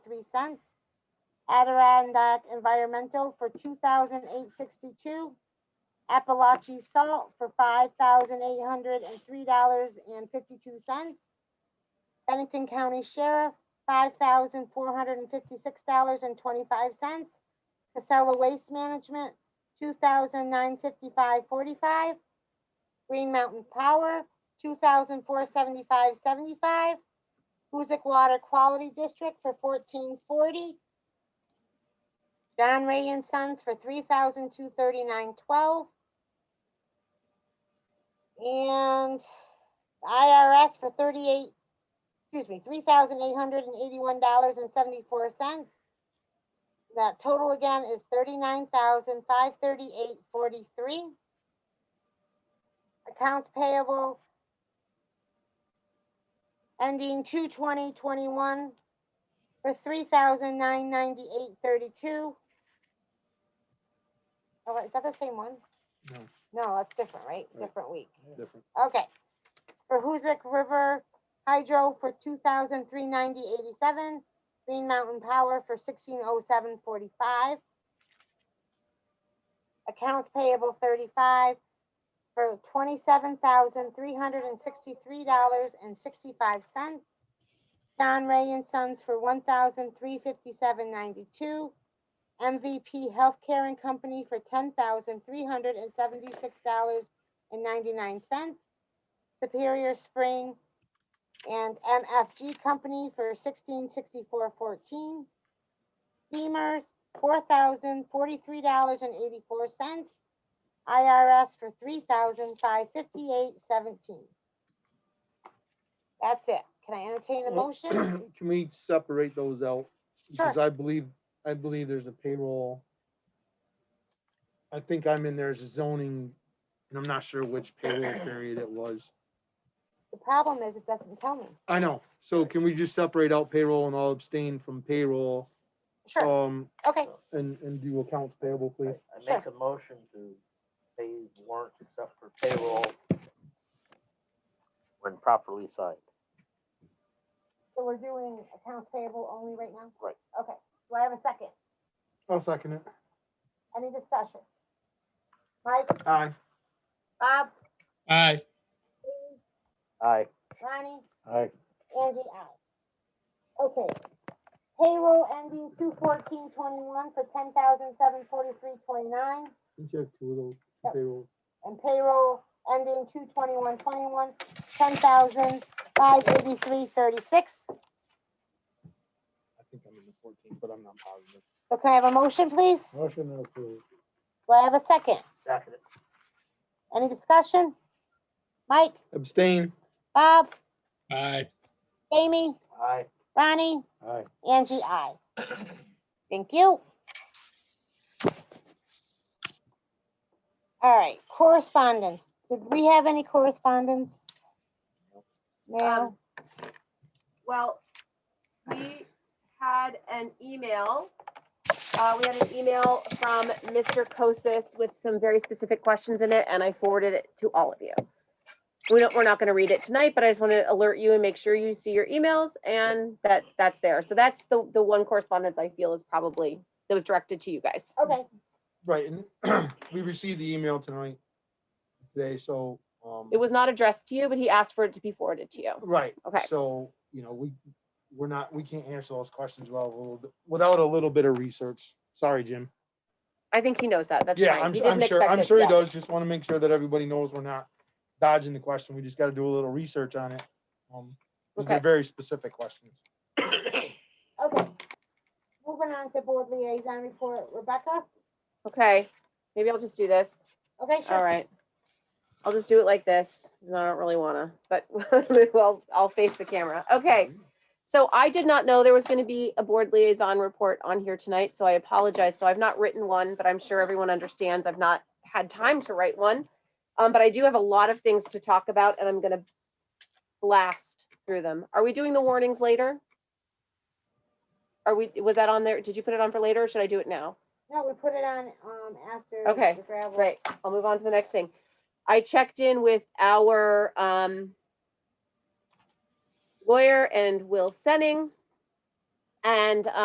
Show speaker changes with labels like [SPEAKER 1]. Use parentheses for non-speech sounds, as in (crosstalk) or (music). [SPEAKER 1] three cents. Adirondack Environmental for two thousand eight sixty-two. Appalachian Salt for five thousand eight hundred and three dollars and fifty-two cents. Bennington County Sheriff, five thousand four hundred and fifty-six dollars and twenty-five cents. Casella Waste Management, two thousand nine fifty-five forty-five. Green Mountain Power, two thousand four seventy-five seventy-five. Huzik Water Quality District for fourteen forty. John Ray and Sons for three thousand two thirty-nine twelve. And IRS for thirty-eight, excuse me, three thousand eight hundred and eighty-one dollars and seventy-four cents. That total again is thirty-nine thousand five thirty-eight forty-three. Accounts payable ending two twenty twenty-one for three thousand nine ninety-eight thirty-two. Oh, is that the same one?
[SPEAKER 2] No.
[SPEAKER 1] No, that's different, right?
[SPEAKER 2] Right.
[SPEAKER 1] Different week.
[SPEAKER 2] Different. (clears throat)
[SPEAKER 1] Okay. For Hoosick River Hydro for two thousand three ninety eighty-seven, Green Mountain Power for sixteen oh seven forty-five. Accounts payable thirty-five for twenty-seven thousand three hundred and sixty-three dollars and sixty-five cents. Don Ray and Sons for one thousand three fifty-seven ninety-two. MVP Healthcare and Company for ten thousand three hundred and seventy-six dollars and ninety-nine cents. Superior Spring and MFG Company for sixteen sixty-four fourteen. Beamer's, four thousand forty-three dollars and eighty-four cents. IRS for three thousand five fifty-eight seventeen. That's it. Can I entertain a
[SPEAKER 2] Well,
[SPEAKER 1] motion?
[SPEAKER 2] Can we separate those out? Because
[SPEAKER 1] Sure.
[SPEAKER 2] I believe, I believe there's a payroll. I think I'm in there as a zoning, and I'm not sure which payroll period it was.
[SPEAKER 1] The problem is it doesn't tell me.
[SPEAKER 2] I know, so can we just separate out payroll and I'll abstain from payroll,
[SPEAKER 1] Sure,
[SPEAKER 2] um,
[SPEAKER 1] okay,
[SPEAKER 2] and, and do accounts payable,
[SPEAKER 3] I
[SPEAKER 2] please?
[SPEAKER 3] I make a motion to pay warrants except for payroll when properly signed.
[SPEAKER 1] so we're doing accounts payable only right now?
[SPEAKER 3] Right.
[SPEAKER 1] Okay, do I have a second?
[SPEAKER 2] I'll second it.
[SPEAKER 1] Any discussion? Mike,
[SPEAKER 2] Aye.
[SPEAKER 1] Bob,
[SPEAKER 4] aye,
[SPEAKER 3] Aye.
[SPEAKER 1] Ronnie,
[SPEAKER 3] Aye.
[SPEAKER 1] Angie, I. Okay. Payroll ending two fourteen twenty-one for ten thousand seven forty-three twenty-nine
[SPEAKER 2] Can you Check two of those
[SPEAKER 1] Yep.
[SPEAKER 2] payroll.
[SPEAKER 1] and payroll ending two twenty-one twenty-one, ten thousand five eighty-three thirty-six.
[SPEAKER 2] I think I'm in the fourteen, but I'm not positive.
[SPEAKER 1] So can I have a motion, please?
[SPEAKER 2] Motion approved.
[SPEAKER 1] Do I have a second?
[SPEAKER 3] Second.
[SPEAKER 1] Any discussion? Mike,
[SPEAKER 2] Abstain.
[SPEAKER 1] Bob,
[SPEAKER 4] aye,
[SPEAKER 1] Jamie,
[SPEAKER 3] Aye.
[SPEAKER 1] Ronnie,
[SPEAKER 3] Aye.
[SPEAKER 1] Angie, (coughs) I. Thank you. All right, correspondence. Did we have any correspondence? No.
[SPEAKER 5] Um, Well, we had an email. Uh, we had an email from Mr. Kosis with some very specific questions in it, and I forwarded it to all of you. We don't, we're not gonna read it tonight, but I just want to alert you and make sure you see your emails and that, that's there. So that's the, the one correspondence I feel is probably, that was directed to you guys.
[SPEAKER 1] Okay,
[SPEAKER 2] Right, and (clears throat) we received the email tonight, today, so, um.
[SPEAKER 5] It was not addressed to you, but he asked for it to be forwarded to you.
[SPEAKER 2] Right.
[SPEAKER 5] Okay.
[SPEAKER 2] So, you know, we, we're not, we can't answer those questions without a little, bit without a little bit of research. Sorry, Jim.
[SPEAKER 5] I think he knows that. That's
[SPEAKER 2] Yeah,
[SPEAKER 5] fine.
[SPEAKER 2] I'm,
[SPEAKER 5] He
[SPEAKER 2] su- I'm
[SPEAKER 5] didn't
[SPEAKER 2] sure,
[SPEAKER 5] expect
[SPEAKER 2] I'm
[SPEAKER 5] it.
[SPEAKER 2] sure he
[SPEAKER 5] Yeah.
[SPEAKER 2] does. Just want to make sure that everybody knows we're not dodging the question. We just got to do a little research on it. Um, these are
[SPEAKER 5] Okay.
[SPEAKER 2] very specific questions.
[SPEAKER 1] okay. Moving on to board liaison report. Rebecca?
[SPEAKER 5] Okay, maybe I'll just do this.
[SPEAKER 1] Okay,
[SPEAKER 5] All
[SPEAKER 1] sure.
[SPEAKER 5] right. I'll just do it like this. No, I don't really wanna, but (laughs) well, I'll face the camera. Okay. So I did not know there was gonna be a board liaison report on here tonight, so I apologize. So I've not written one, but I'm sure everyone understands I've not had time to write one. Um, but I do have a lot of things to talk about and I'm gonna blast through them. Are we doing the warnings later? Are we, was that on there? Did you put it on for later or should I do it now?
[SPEAKER 1] No, we put it on, um, after.
[SPEAKER 5] Okay,
[SPEAKER 1] the gravel.
[SPEAKER 5] Right, I'll move on to the next thing. I checked in with our um lawyer and Will Senning. And